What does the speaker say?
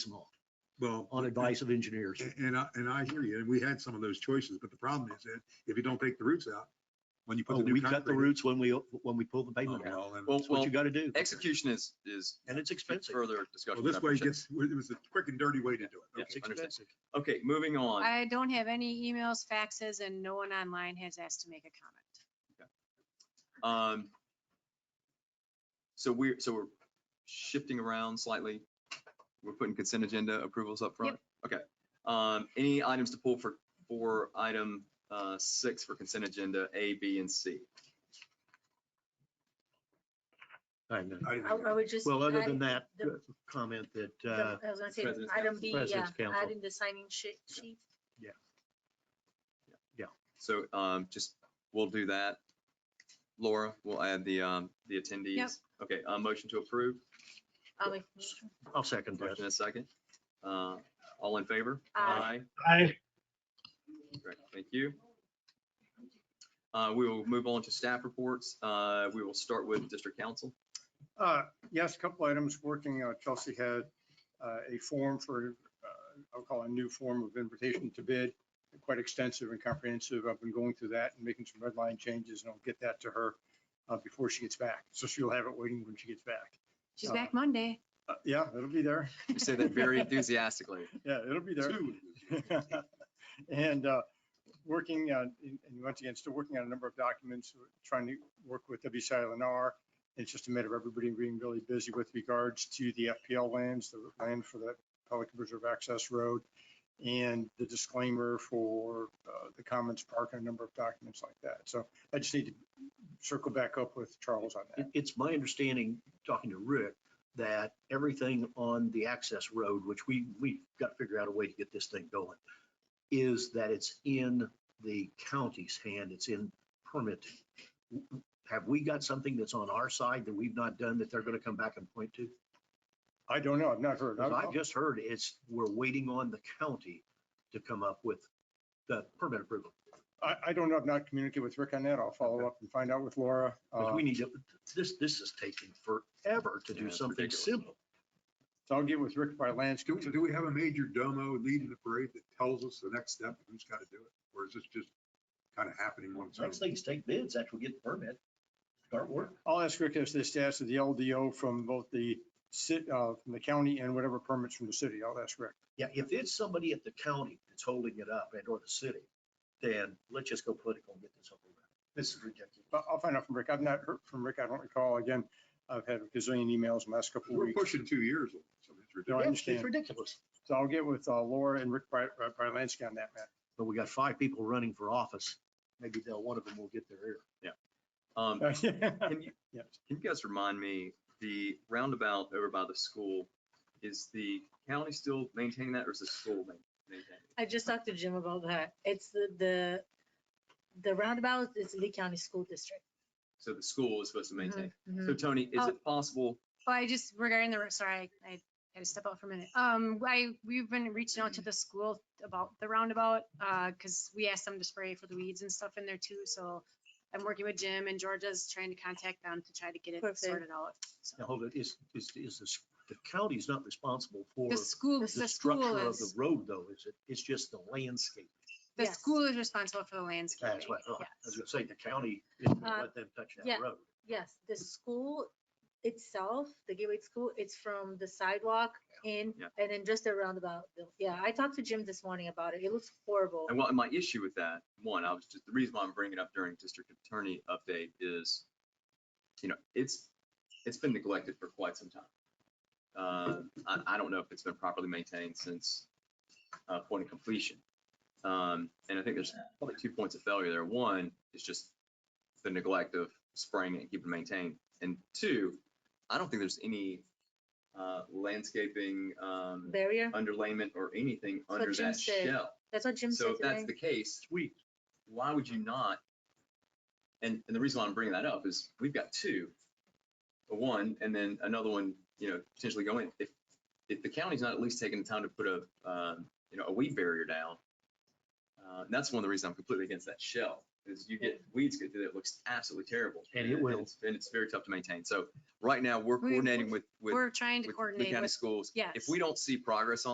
small Well, on advice of engineers. a- and I, and I hear you. And we had some of those choices, but the problem is that if you don't take the roots out, when you put Oh, the new we cut the concrete. roots when we, when we pull the in- oh, pavement out. well, then- Well, That's what well, you gotta do. execution is, is And it's expensive. further Well, discussion. this I way it appreciate gets, it was the quick and dirty way to do it. Yeah. It's Okay. understand. expensive. it. Okay, moving on. I don't have any emails, faxes, and no one online has asked to make a comment. Um, so we're, so we're shifting around slightly. We're putting consent agenda approvals up front. Okay. Um, any items to pull for, for item, uh, six for consent agenda, A, B, and C? I know. I didn't I think I of would just. Well, other add than that, the- uh, comment that, the- uh, I was gonna say, President's item Council. B, yeah, President's Council. adding the signing sheet, sheet. So, um, just, we'll do that. Laura, we'll add the, um, the attendees. Okay, uh, motion to approve, I'll make- I'll second that. motion in a second. Uh, all in favor? Aye. Aye. Great, thank you. Uh, we will move on to staff reports. Uh, we will start with district council. Uh, Yes, a couple items working. uh, Chelsea had uh, a form for, uh, I'll call it a new form of invitation to bid, quite extensive and comprehensive. I've been going through that and making some red line changes, and I'll get that to her uh, before she gets back. So she'll have it waiting when she gets back. She's Oh. back Monday. Uh, Yeah, it'll be there. You say that very enthusiastically. Yeah, it'll be there. And uh, working on, and and once again, still working on a number of documents, We're trying to work with W. Silent R. It's just a matter of everybody being really busy with regards to the FPL lands, the land for the Pelican Reserve Access Road, and the disclaimer for uh, the Commons Park and a number of documents like that. So I just need to circle back up with Charles on that. It- It's my understanding, talking to Rick, that everything on the access road, which we, we've got to figure out a way to get this thing going, is that it's in the county's hand, it's in permit. Have we got something that's on our side that we've not done that they're going to come back and point to? I don't know, I've not heard. Because I've I'll- just heard it's, we're waiting on the county to come up with the permit approval. I, I don't know, I've not communicated with Rick on that. I'll follow up and find out with Laura. Because Uh, we need to, this, this is taking forever to Yeah, do it's something ridiculous. simple. So I'll get with Rick by Do, landscape. so do we have a major domo leading the parade that tells us the next step, who's got to do it? Or is this just kind of happening once? Next thing is take bids after we get the permit, start work. I'll ask Rick as to the status of the LDO from both the cit, uh, from the county and whatever permits from the city. I'll ask Rick. Yeah, if it's somebody at the county that's holding it up and or the city, then let's just go political and get this over with. This is ridiculous. Uh, But I'll find out from Rick. I've not heard from Rick. I don't recall. Again, I've had a gazillion emails in the last couple of We're weeks. pushing two years. on this. I mean, it's ridiculous. I Yeah, It's understand. ridiculous. So I'll get with uh, Laura and Rick by, by Lansky on that, Matt. But we got five people running for office. Maybe they'll, one of them will get their ear. Um, Yeah. can you, can you guys remind me, the roundabout over by the school, is the county still maintaining that or is the school ma- maintaining? it? I just talked to Jim about that. It's the, the, the roundabout is Lee County School District. So the school is supposed to maintain. Mhm. So Tony, is Oh. it possible, Well, I just regarding the, r- sorry, I had to step out for a minute. Um, I, we've been reaching out to the school about the roundabout, uh, cause we asked them to spray for the weeds and stuff in there too, so I'm working with Jim and Georgia's trying to contact them to try to get it Perfect. sorted out. Now, hold it, is, is, is this, the county's not responsible for The the school, the school structure of the is, road though, is it? It's just the landscape. the Yes. school is responsible for the landscaping. That's what, I thought. I was yes. gonna say, the county isn't gonna Uh, let them touch yeah. that road. Yes, the school itself, the Gateway School, it's from the sidewalk in, Yeah. and then just the roundabout. Yeah, I talked to Jim this morning about it. It looks horrible. and what, my issue with that, one, I was just, the reason why I'm bringing it up during district attorney update is, you know, it's, it's been neglected for quite some time. Uh, I, I don't know if it's been properly maintained since uh, point of completion. Um, And I think there's probably two points of failure there. One is just the neglect of spraying it and keeping it maintained. And two, I don't think there's any uh, landscaping, um, Barrier, underlayment or anything what under Jim that said. shell. that's what Jim So said if that's today. the case, Sweet. why would you not? And, and the reason why I'm bringing that up is we've got two, one and then another one, you know, potentially going, if, if the county's not at least taking the time to put a, um, you know, a weed barrier down, uh, and that's one of the reasons I'm completely against that shell. is you get, weeds get through there, it looks absolutely terrible. And it will. it's- And it's very tough to maintain. So right now, we're We- coordinating with, with We're trying to with the coordinate county with, schools. yes. If we don't see progress on